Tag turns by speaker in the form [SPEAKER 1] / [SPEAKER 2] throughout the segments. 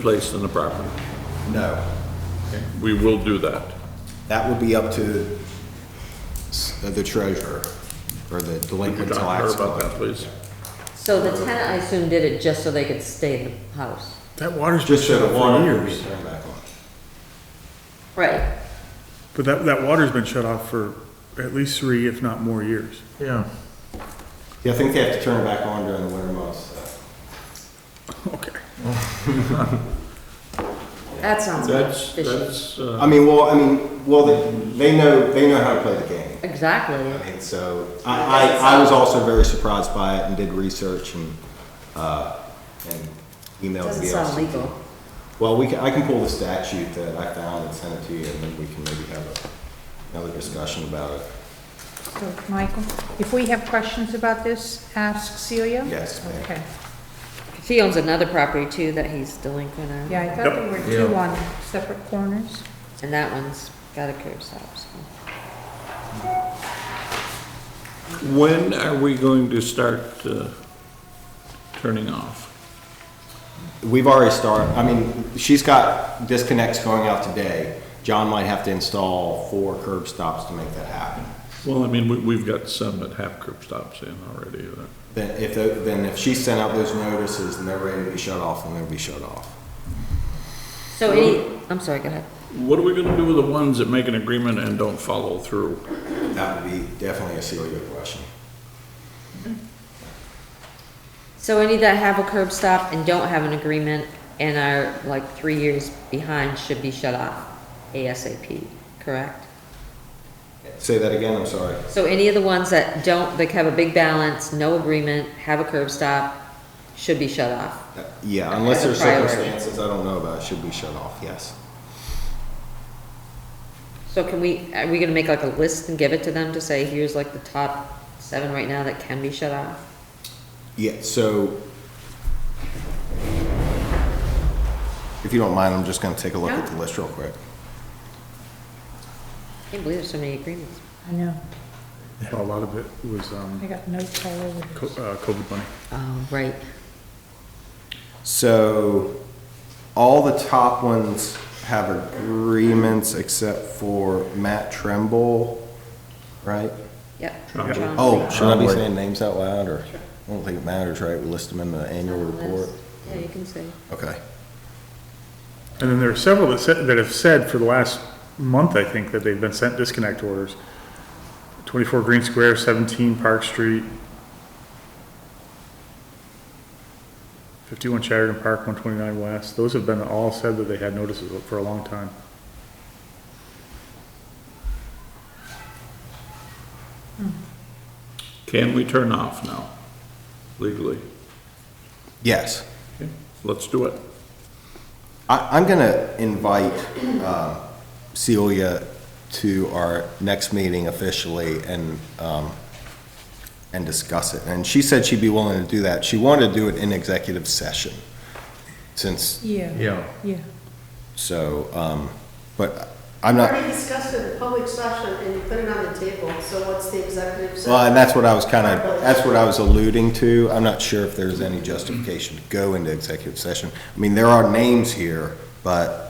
[SPEAKER 1] placed on the property.
[SPEAKER 2] No,
[SPEAKER 1] We will do that.
[SPEAKER 2] that would be up to s- uh, the treasurer or the
[SPEAKER 1] Could you
[SPEAKER 2] delinquent
[SPEAKER 1] talk to
[SPEAKER 2] tax
[SPEAKER 1] her about that,
[SPEAKER 2] collector.
[SPEAKER 1] please?
[SPEAKER 3] So the tenant, I assume, did it just so they could stay in the house?
[SPEAKER 4] That water's been
[SPEAKER 2] Just
[SPEAKER 4] shut
[SPEAKER 2] so
[SPEAKER 4] off
[SPEAKER 2] the water
[SPEAKER 4] for
[SPEAKER 2] can be
[SPEAKER 4] years.
[SPEAKER 2] turned back on.
[SPEAKER 3] Right.
[SPEAKER 4] But that, that water's been shut off for at least three, if not more years.
[SPEAKER 5] Yeah,
[SPEAKER 2] Yeah, I think they have to turn it back on during the winter months. so.
[SPEAKER 4] Okay.
[SPEAKER 3] That sounds
[SPEAKER 1] That's,
[SPEAKER 3] fishy.
[SPEAKER 1] that's, uh,
[SPEAKER 2] I mean, well, I mean, well, they, they know, they know how to play the game.
[SPEAKER 3] Exactly.
[SPEAKER 2] And so I, I, I was also very surprised by it and did research and, uh, and emailed
[SPEAKER 3] Doesn't
[SPEAKER 2] the
[SPEAKER 3] sound
[SPEAKER 2] VLCT.
[SPEAKER 3] legal.
[SPEAKER 2] Well, we can, I can pull the statute that I found and send it to you and then we can maybe have a- another discussion about it.
[SPEAKER 6] So, Michael, if we have questions about this, ask Celia?
[SPEAKER 2] Yes, ma'am.
[SPEAKER 6] Okay.
[SPEAKER 3] He owns another property too that he's delinquent on.
[SPEAKER 6] Yeah, I thought there were two on separate corners.
[SPEAKER 3] And that one's got a curb stop, so.
[SPEAKER 1] when are we going to start uh, turning off?
[SPEAKER 2] We've already started, I mean, she's got disconnects going out today. John might have to install four curb stops to make that happen.
[SPEAKER 1] Well, I mean, we, we've got some that have curb stops in already. uh,
[SPEAKER 2] Then if, tho- then if she sent out those notices and they're ready to be shut off, then they'll be shut off.
[SPEAKER 3] So any, I'm sorry, go ahead.
[SPEAKER 1] What are we gonna do with the ones that make an agreement and don't follow through?
[SPEAKER 2] That would be definitely a Celia question.
[SPEAKER 3] So any that have a curb stop and don't have an agreement and are like three years behind should be shut off ASAP, correct?
[SPEAKER 2] Say that again, I'm sorry.
[SPEAKER 3] So any of the ones that don't, that have a big balance, no agreement, have a curb stop, should be shut off.
[SPEAKER 2] Uh, Yeah, unless there's
[SPEAKER 3] As a priority.
[SPEAKER 2] circumstances I don't know about, it should be shut off, yes.
[SPEAKER 3] So can we, are we gonna make like a list and give it to them to say, here's like the top seven right now that can be shut off?
[SPEAKER 2] Yeah, so if you don't mind, I'm just gonna take a look at the list real quick.
[SPEAKER 3] I can't believe there's so many agreements.
[SPEAKER 6] I know,
[SPEAKER 4] A lot of it was,
[SPEAKER 6] I
[SPEAKER 4] um,
[SPEAKER 6] got no color with
[SPEAKER 4] co- uh, COVID money.
[SPEAKER 3] Oh, right.
[SPEAKER 2] So all the top ones have agreements except for Matt Tremble, right?
[SPEAKER 3] Yep.
[SPEAKER 1] Trombley.
[SPEAKER 3] Trombley.
[SPEAKER 2] Oh, should I be saying names out loud or? I don't think it matters, right? We list them in the annual report.
[SPEAKER 3] Yeah, you can say.
[SPEAKER 2] Okay.
[SPEAKER 4] And then there are several that said, that have said for the last month, I think, that they've been sent disconnect orders. Twenty-four Green Square, seventeen Park Street, fifty-one Sheridan Park, one twenty-nine West. Those have been all said that they had notices for a long time.
[SPEAKER 1] Can we turn off now legally?
[SPEAKER 2] Yes.
[SPEAKER 1] Okay, Let's do it.
[SPEAKER 2] I, I'm gonna invite um, Celia to our next meeting officially and, um, and discuss it. And she said she'd be willing to do that. She wanted to do it in executive session, since,
[SPEAKER 6] Yeah.
[SPEAKER 5] yeah.
[SPEAKER 6] Yeah.
[SPEAKER 2] so, um, but I'm not,
[SPEAKER 7] Already discussed it in public session and you put it on the table, so what's the executive session?
[SPEAKER 2] well, and that's what I was kind of, that's what I was alluding to. I'm not sure if there's any justification to go into executive session. I mean, there are names here, but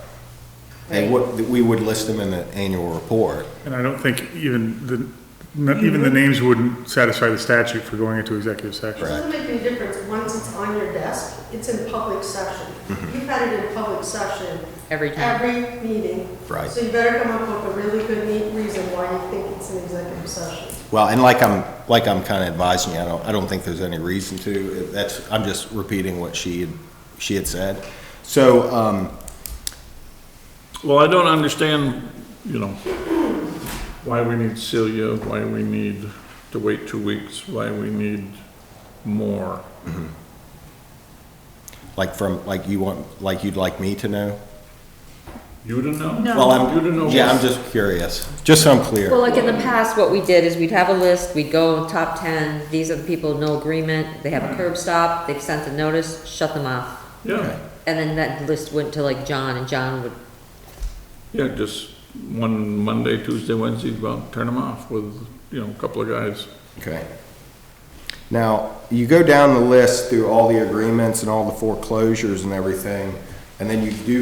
[SPEAKER 2] they would, we would list them in the annual report.
[SPEAKER 4] And I don't think even the, not even the names wouldn't satisfy the statute for going into executive
[SPEAKER 7] It
[SPEAKER 4] session.
[SPEAKER 7] doesn't make any difference, once it's on your desk, it's in public session.
[SPEAKER 2] Mm-hmm.
[SPEAKER 7] You've had it in public session.
[SPEAKER 3] Every time.
[SPEAKER 7] Every meeting.
[SPEAKER 2] Right.
[SPEAKER 7] So you better come up with a really good neat reason why you think it's an executive session.
[SPEAKER 2] Well, and like I'm, like I'm kind of advising you, I don't, I don't think there's any reason to. That's, I'm just repeating what she, had- she had said. So, um,
[SPEAKER 1] Well, I don't understand, you know, why we need Celia, why we need to wait two weeks, why we need more.
[SPEAKER 2] like from, like you want, like you'd like me to know?
[SPEAKER 1] You don't know?
[SPEAKER 6] No.
[SPEAKER 2] Well, I'm,
[SPEAKER 1] You don't know.
[SPEAKER 2] Yeah, I'm just curious, just so I'm
[SPEAKER 3] Well,
[SPEAKER 2] clear.
[SPEAKER 3] like in the past, what we did is we'd have a list, we'd go top ten, these are the people, no agreement, they have a curb stop, they've sent a notice, shut them off.
[SPEAKER 1] Yeah,
[SPEAKER 3] And then that list went to like John and John would,
[SPEAKER 1] yeah, just one Monday, Tuesday, Wednesday, well, turn them off with, you know, a couple of guys.
[SPEAKER 2] Okay. Now, you go down the list through all the agreements and all the foreclosures and everything, And then you do